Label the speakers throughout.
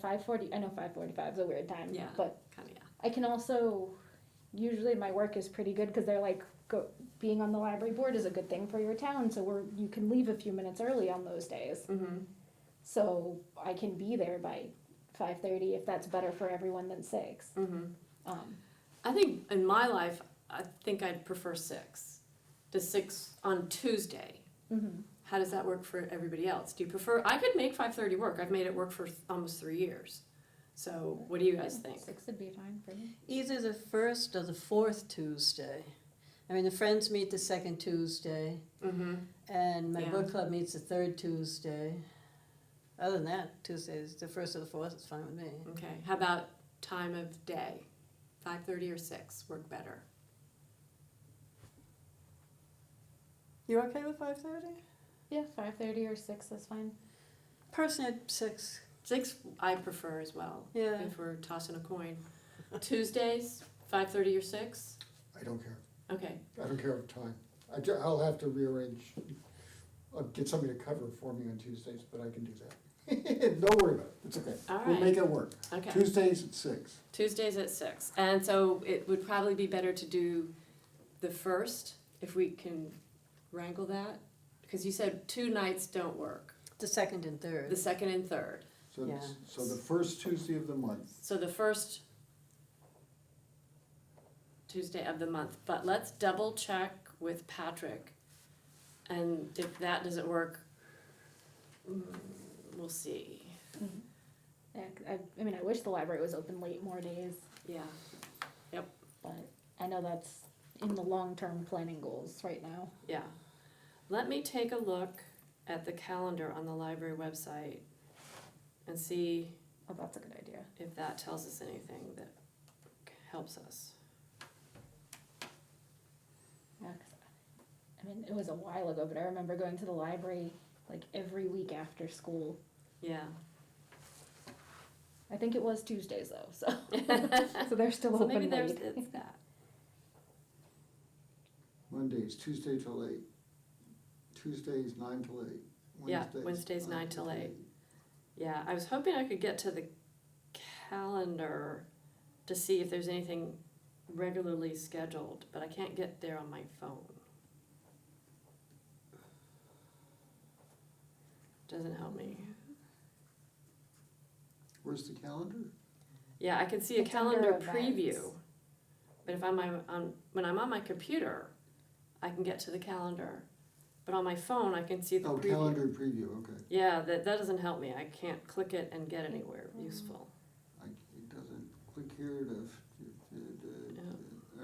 Speaker 1: five forty. I know five forty-five is a weird time.
Speaker 2: Yeah.
Speaker 1: But
Speaker 2: Kind of, yeah.
Speaker 1: I can also usually my work is pretty good because they're like go, being on the library board is a good thing for your town, so we're you can leave a few minutes early on those days.
Speaker 2: Mm-hmm.
Speaker 1: So I can be there by five thirty if that's better for everyone than six.
Speaker 2: Mm-hmm.
Speaker 1: Um,
Speaker 2: I think in my life, I think I'd prefer six to six on Tuesday.
Speaker 1: mhm.
Speaker 2: How does that work for everybody else? Do you prefer? I could make five thirty work. I've made it work for th- almost three years. So what do you guys think?
Speaker 1: Six would be fine for me.
Speaker 3: Either the first or the fourth Tuesday. I mean, the friends meet the second Tuesday,
Speaker 2: Mm-hmm.
Speaker 3: and my
Speaker 2: Yeah.
Speaker 3: book club meets the third Tuesday. Other than that, Tuesdays, the first or the fourth is fine with me.
Speaker 2: Okay. How about time of day? Five thirty or six work better.
Speaker 3: You okay with five thirty?
Speaker 1: Yeah, five thirty or six is fine.
Speaker 3: Personally, at six.
Speaker 2: Six I prefer as well.
Speaker 3: Yeah.
Speaker 2: If we're tossing a coin, Tuesdays five thirty or six.
Speaker 4: I don't care.
Speaker 2: Okay.
Speaker 4: I don't care of time. I ju- I'll have to rearrange, I'll get somebody to cover for me on Tuesdays, but I can do that. Don't worry about it, it's okay.
Speaker 2: All
Speaker 4: We'll
Speaker 2: right.
Speaker 4: make it work.
Speaker 2: Okay.
Speaker 4: Tuesdays at six.
Speaker 2: Tuesdays at six, and so it would probably be better to do the first if we can wrangle that, because you said two nights don't work,
Speaker 3: The second and
Speaker 2: the
Speaker 3: third.
Speaker 2: second and third.
Speaker 4: So, it's-
Speaker 3: Yeah.
Speaker 4: so the first Tuesday of the month.
Speaker 2: So the first Tuesday of the month, but let's double check with Patrick, and if that doesn't work, mm, we'll see.
Speaker 1: Mm-hmm. Yeah, 'cause I, I mean, I wish the library was open late more days,
Speaker 2: Yeah.
Speaker 1: but I know that's in the long-term planning goals right now.
Speaker 2: Yeah. Let me take a look at the calendar on the library website and see
Speaker 1: Oh, that's a good idea.
Speaker 2: if that tells us anything that helps us.
Speaker 1: Yeah, 'cause I- I mean, it was a while ago, but I remember going to the library like every week after school.
Speaker 2: Yeah.
Speaker 1: I think it was Tuesdays though, so
Speaker 2: so
Speaker 1: so they're still open
Speaker 2: maybe there's
Speaker 1: late.
Speaker 2: it's that.
Speaker 4: Mondays, Tuesday till eight. Tuesdays, nine till eight.
Speaker 2: Yeah, Wednesdays, nine till eight. Yeah, I was hoping I could get to the calendar to see if there's anything regularly scheduled, but I can't get there on my phone. Doesn't help me.
Speaker 4: Where's the calendar?
Speaker 2: Yeah, I can see a
Speaker 1: It's under
Speaker 2: calendar
Speaker 1: events.
Speaker 2: preview. But if I'm on- on, when I'm on my computer, I can get to the calendar. But on my phone, I can see the
Speaker 4: Oh,
Speaker 2: preview.
Speaker 4: calendar preview, okay.
Speaker 2: Yeah, that, that doesn't help me. I can't click it and get anywhere
Speaker 1: Mm-hmm.
Speaker 2: useful.
Speaker 4: I, it doesn't click here to, to, to,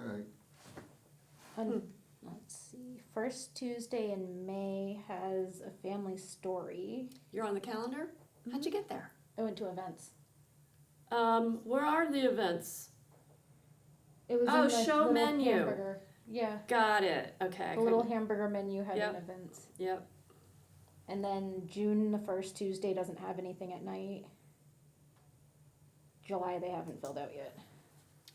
Speaker 4: all right.
Speaker 1: Um,
Speaker 2: Hmm.
Speaker 1: let's see. First Tuesday in May has a family story.
Speaker 2: You're on the calendar? How'd you
Speaker 1: Mm-hmm.
Speaker 2: get there?
Speaker 1: I went to events.
Speaker 2: Um, where are the events?
Speaker 1: It was
Speaker 2: Oh,
Speaker 1: in the
Speaker 2: show
Speaker 1: little
Speaker 2: menu.
Speaker 1: Hamburger. Yeah,
Speaker 2: Got it. Okay. I
Speaker 1: the little
Speaker 2: couldn't-
Speaker 1: hamburger menu had an
Speaker 2: Yep.
Speaker 1: event.
Speaker 2: Yep.
Speaker 1: And then June, the first Tuesday, doesn't have anything at night. July, they haven't filled out yet.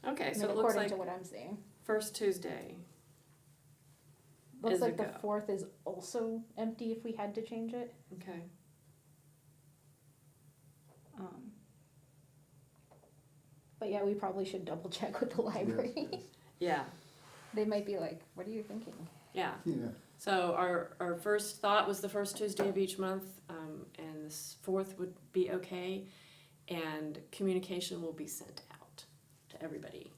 Speaker 2: Okay,
Speaker 1: I
Speaker 2: so
Speaker 1: mean,
Speaker 2: it looks
Speaker 1: according
Speaker 2: like
Speaker 1: to what I'm seeing.
Speaker 2: first Tuesday.
Speaker 1: Looks
Speaker 2: is a
Speaker 1: like the
Speaker 2: go.
Speaker 1: fourth is also empty if we had to change it.
Speaker 2: Okay.
Speaker 1: Um, but yeah, we probably should double check with the library.
Speaker 2: Yeah.
Speaker 1: they might be like, "What are you thinking?"
Speaker 2: Yeah.
Speaker 4: Yeah,
Speaker 2: So our, our first thought was the first Tuesday of each month, um, and this fourth would be okay, and communication will be sent out to everybody.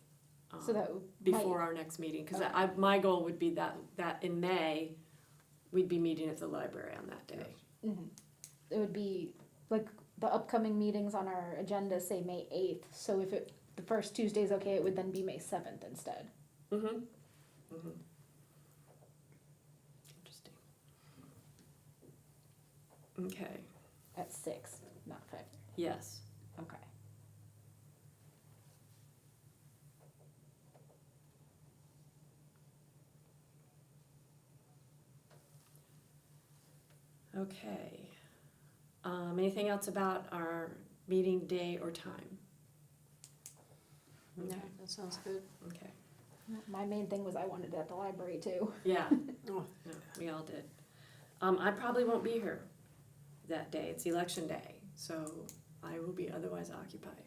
Speaker 2: um,
Speaker 1: So that might-
Speaker 2: Before our next meeting, cause I, I- my goal would be that, that in May, we'd be meeting at the library on that day.
Speaker 1: Mhm. it would be like the upcoming meetings on our agenda say May eighth. So if it the first Tuesday is okay, it would then be May seventh instead.
Speaker 2: Mm-hmm, mm-hmm. Interesting. Okay,
Speaker 1: At six, not five.
Speaker 2: yes.
Speaker 1: Okay.
Speaker 2: Okay. Um, anything else about our meeting day or time?
Speaker 3: Yeah,
Speaker 2: Okay.
Speaker 3: that sounds good.
Speaker 2: Okay.
Speaker 1: My main thing was I wanted it at the library too.
Speaker 2: Yeah,
Speaker 3: Oh,
Speaker 2: yeah, we all did. Um, I probably won't be here that day. It's election day, so I will be otherwise occupied.